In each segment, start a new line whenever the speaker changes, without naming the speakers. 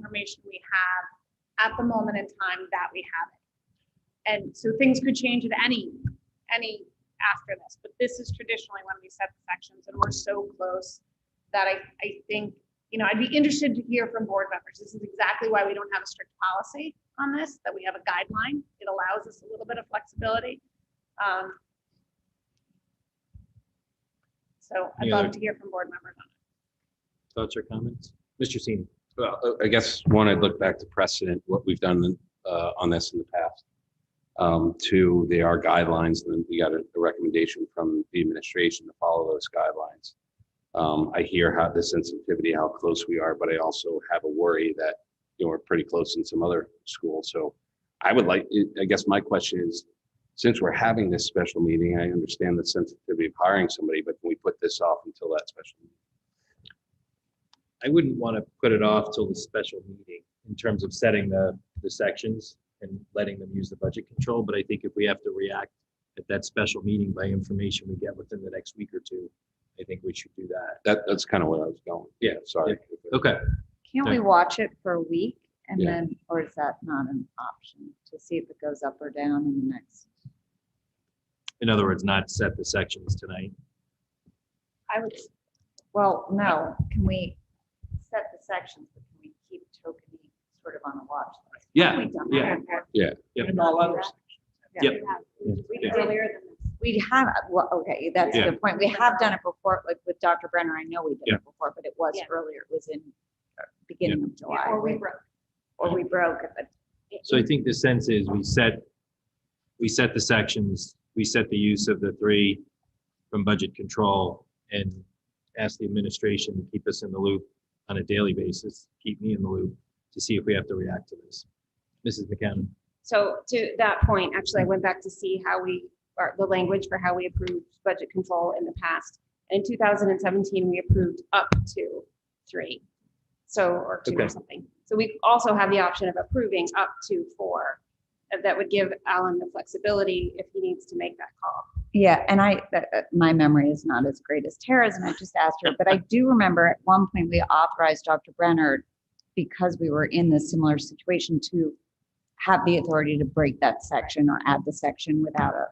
information we have at the moment in time that we have it. And so things could change at any, any after this, but this is traditionally when we set the sections and we're so close that I, I think, you know, I'd be interested to hear from board members. This is exactly why we don't have a strict policy on this, that we have a guideline. It allows us a little bit of flexibility. Um, So I'd
Any
love
other-
to hear from board members on
Thoughts or comments? Mr. Seaman?
Well, uh, I- I guess, one, I'd look back to precedent, what we've done uh, on this in the past. Um, Two, they are guidelines, and we got a a recommendation from the administration to follow those guidelines. Um, I hear how the sensitivity, how close we are, but I also have a worry that, you know, we're pretty close in some other schools. So I would like, I guess my question is, since we're having this special meeting, I understand the sensitivity of hiring somebody, but can we put this off until that special? meeting?
I wouldn't want to put it off till the special meeting in terms of setting the, the sections and letting them use the budget control, but I think if we have to react at that special meeting by information we get within the next week or two, I think we should do that.
That, that's kind of where I was going.
Yeah,
Sorry.
Okay,
Can't
Yeah.
we watch it for a week and
Yeah.
then, or is that not an option to see if it goes up or down in the next?
in other words, not set the sections tonight.
it. I would,
Well, no, can we set the sections, but can we keep tokening sort of on a watch? list?
Yeah,
We done
yeah,
that?
yeah.
We've done that. Yeah.
Yep.
We
Yeah.
did earlier than this. We have, well, okay, that's
Yeah.
the point. We have done it before, like with Dr. Brenner, I know we did
Yeah.
it before, but it was
Yeah.
earlier, it was in uh, beginning of July.
or we
right?
broke.
Or we broke it, but
So I think the sense is we set, we set the sections, we set the use of the three from budget control and ask the administration to keep us in the loop on a daily basis, keep me in the loop to see if we have to react to this. Mrs. McCown,
So to that point, actually, I went back to see how we, or the language for how we approved budget control in the past. In two thousand and seventeen, we approved up to three. So, or two
Okay.
or something. So we also have the option of approving up to four. And That would give Alan the flexibility if he needs to make that call.
Yeah, and I, uh, uh, my memory is not as great as Tara's, and I just asked her, but I do remember at one point we authorized Dr. Brenner because we were in this similar situation to have the authority to break that section or add the section without a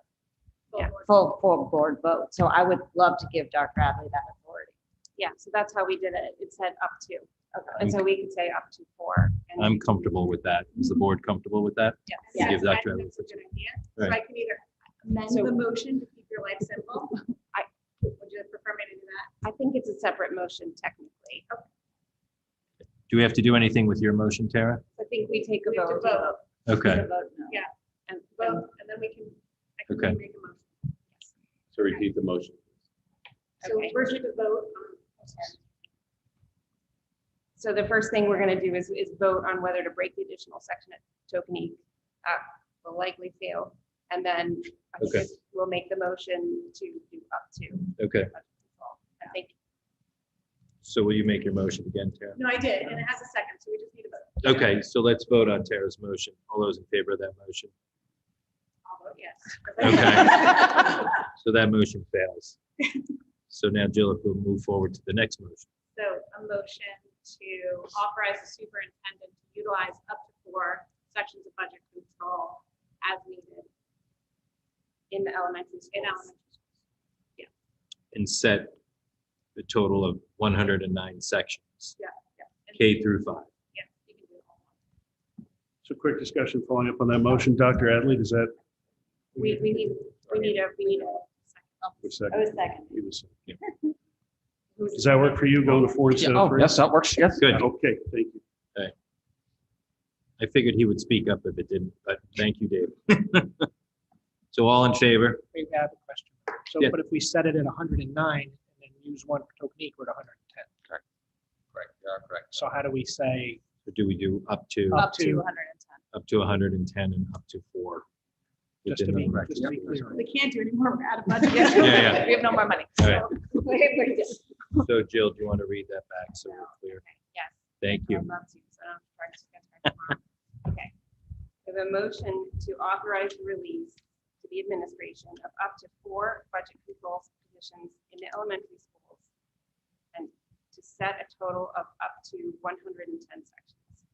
Yeah.
full, full board vote. So I would love to give Dr. Adley that authority.
Yeah, so that's how we did it. It said up to. And so we could say up to four. and-
I'm comfortable with that. Is the board comfortable with that?
Yeah,
Give
I
that to
think
him.
that's a good idea. So I
Right.
can either amend
So-
the motion to keep your life simple. I, would you prefer me to do that?
I think it's a separate motion technically.
Do we have to do anything with your motion, Tara?
I think we take a
We have to
vote.
vote.
Okay,
To vote no.
and- and
Vote, and then we can, I can
Okay.
make a motion.
So repeat the motion.
So
Okay.
first we could vote. on-
So the first thing we're gonna do is, is vote on whether to break the additional section at Tokenie. Uh, Will likely fail, and then I
Okay.
think we'll make the motion to do up to.
okay.
I think,
So will you make your motion again, Tara?
No, I did, and it has a second, so we just need a vote.
Okay, so let's vote on Tara's motion. All those in favor of that motion?
I'll vote yes.
Okay. So that motion fails. So now Jill, if we'll move forward to the next motion.
So a motion to authorize the superintendent to utilize up to four sections of budget control as needed
in the elementary
in
schools.
elementary.
and set the total of one hundred and nine sections,
and-
K through five.
Yeah, you can do it all.
So quick discussion following up on that motion. Dr. Adley, does that?
We, we need, we need a, we need a.
Wait a second.
was second.
Wait a second. Does that work for you going to four instead of three?
that works. oh, Yes.
Good.
Okay, thank you.
I figured he would speak up if it didn't, but thank you, Dave. So all in favor?
Wait, I have a question. So,
Yeah.
but if we set it at hundred and nine and then use one for Tokenique, we're at hundred and ten.
Correct. Yeah, correct.
So how do we say
Or do we do up to,
up to,
110.
up to hundred and ten and up to four?
just to
within the
be,
correct
just to be
numbers?
clear?
We can't do anymore, we're out of budget.
Yeah, yeah.
We have no more money.
All right.
Yes.
So Jill, do you want to read that back so we're clear? Thank
I
you.
love to, so I don't have to charge you guys back tomorrow. Okay. We have a motion to authorize the release to the administration of up to four budget control positions in the elementary schools and to set a total of up to one hundred and ten sections.